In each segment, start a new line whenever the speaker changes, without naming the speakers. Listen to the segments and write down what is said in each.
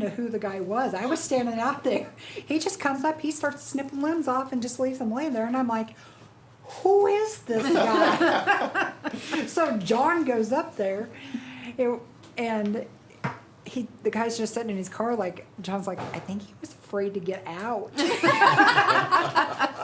to who the guy was. I was standing out there. He just comes up, he starts snipping limbs off and just leaves them laying there. And I'm like, who is this guy? so John goes up there it- and he, the guy's just sitting in his car like, John's like, I think he was afraid to get out.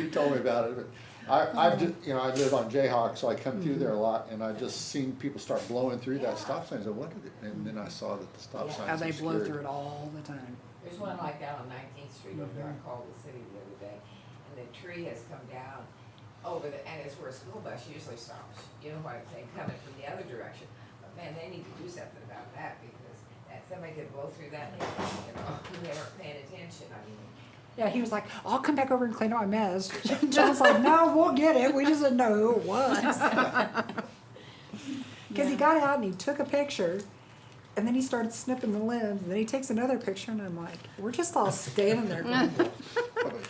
He told me about it, but I, I've just, you know, I live on Jayhawk, so I come through
Mm-hmm.
there a lot, and I just seen people start blowing through that stop sign, I said, what did it, and then I saw that the stop sign.
How they blow through it all the time.
There's one like that on Nineteenth Street over there, I called the city the other day, and the tree has come down over the, and it's where a school bus usually stops. You know what I'm saying, coming from the other direction. But man, they need to do something about that because that, somebody could blow through that, and, you know, they weren't paying attention, I mean.
Yeah, he was like, I'll come back over and clean up my mess. John's like, no, we'll get it. We just didn't know who it was. Because he got out and he took a picture, and then he started snipping the limbs, and then he takes another picture, and I'm like, we're just all standing there going,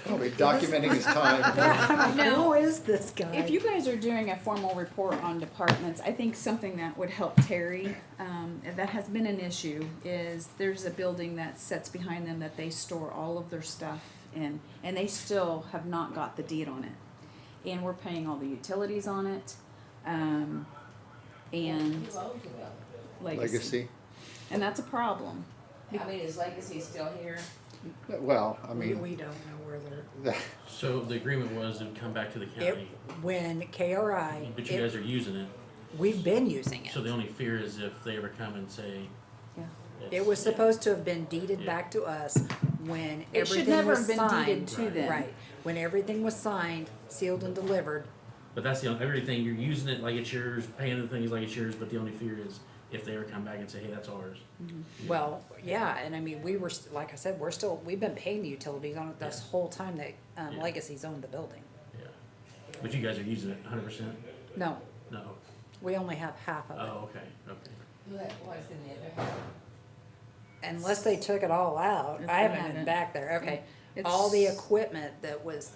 Probably documenting his time.
yeah, I'm like,
No.
who is this guy?
If you guys are doing a formal report on departments, I think something that would help Terry, um, and that has been an issue, is there's a building that sits behind them that they store all of their stuff in, and they still have not got the deed on it. And we're paying all the utilities on it, um, and
Who owns it though?
Legacy,
And that's a problem.
I mean, is Legacy still here?
well, I
we,
mean,
we don't know where they're.
So the agreement was it would come back to the
It,
county,
when KRI,
but you
it,
guys are using it.
we've been using
So
it.
the only fear is if they ever come and say.
Yeah.
It
it's-
was supposed to have been deeded
Yeah.
back to us when
It should
everything
never
was
have been deeded
signed.
to them.
Right, when everything was signed, sealed and delivered,
But that's the only, everything, you're using it like it's yours, paying the things like it's yours, but the only fear is if they ever come back and say, hey, that's ours.
Mm-hmm. Well, yeah, and I mean, we were, st- like I said, we're still, we've been paying the utilities on it this whole time that, um,
Yeah.
Legacy's owned the building.
Yeah. But you guys are using it hundred percent?
No,
No.
we only have half of
Oh, okay, okay.
Who that was in the other house?
it, unless they took it all out,
If
I
they
haven't been
haven't.
back there, okay.
It's-
All the equipment that was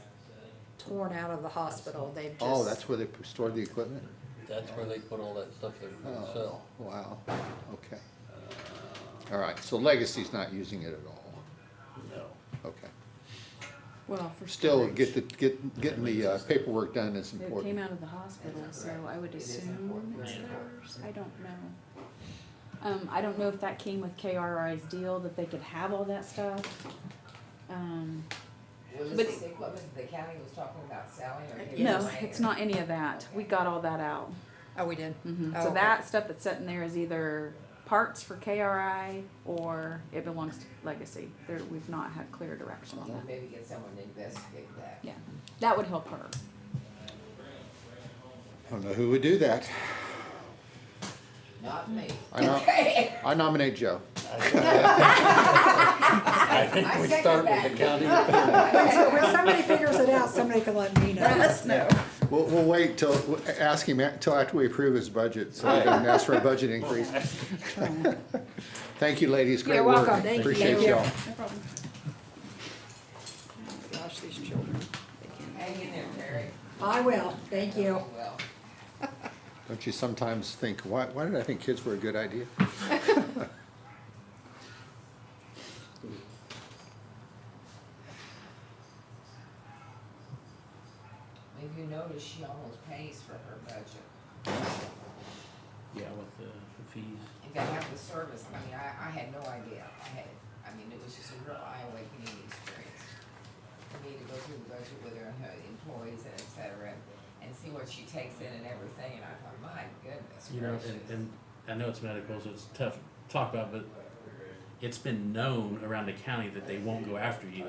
torn out of the hospital, they've
oh,
just,
that's where they stored the equipment?
That's where they put all that stuff they're gonna
Oh,
sell.
wow, okay. All right, so Legacy's not using it at all,
No.
okay.
Well, for
Still, get the, get, getting the uh, paperwork done is
It came
important.
out of the hospital, so I would assume it's theirs, I don't know. Um, I don't know if that came with KRI's deal, that they could have all that stuff. Um,
Was
But- Uh,
this the equipment that the county was talking about selling or? he was
no,
buying
it's
or-
not any of that, we got all that out.
oh, we did?
Mhm.
Oh,
So
okay.
that stuff that's sitting there is either parts for KRI or it belongs to Legacy, there, we've not had clear direction on that.
Maybe get someone to investigate that.
Yeah, that would help her.
I don't know who would do that.
Not me.
I know. I nominate Joe.
I think
I
we
second
start with the county. attorney.
So when somebody figures it out, somebody can let me know.
We'll, we'll wait till, we'll ask him until after we approve his budget, so we can ask for a budget increase. Thank you, ladies, great
You're
work.
welcome. Thank you.
Appreciate
Thank you.
y'all.
No problem.
Gosh, these children.
Hang in there, Terry.
I will, thank you.
Well,
Don't you sometimes think, why, why did I think kids were a good idea?
if you notice, she almost pays for her budget.
Yeah, with the the fees.
If they have the service, I mean, I, I had no idea. I had, I mean, it was just a real eye-awakening experience. For me to go through the budget with her and her employees and et cetera, and see what she takes in and everything, and I thought, my goodness
You know, and,
gracious.
and I know it's medical, so it's tough to talk about, but it's been known around the county that they won't go after you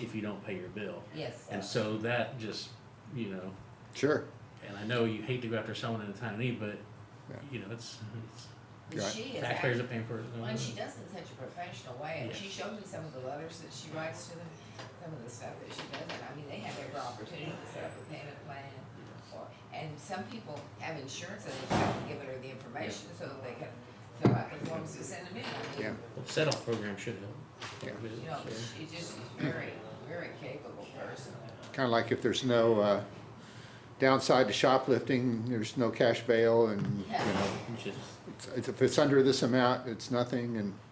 if you don't pay your bill.
Yes.
And so that just, you know,
Sure,
and I know you hate to go after someone in a time of need, but, you know, it's, it's
But
Right.
she is
taxpayers are paying for it.
Well, And she does it in such a professional way, and she
Yes.
showed me some of the letters that she writes to them, some of the stuff that she does, and I mean, they have every opportunity to set up a payment plan. or And some people have insurance and they haven't given her the information so that they can fill out the forms to send them in. I
yeah.
mean,
Set off program should help.
Yeah.
You know, but she just is very, very capable person.
Kind of like if there's no, uh, Downside to shoplifting, there's no cash bail and, you know,
which is
it's- if it's under this amount, it's nothing and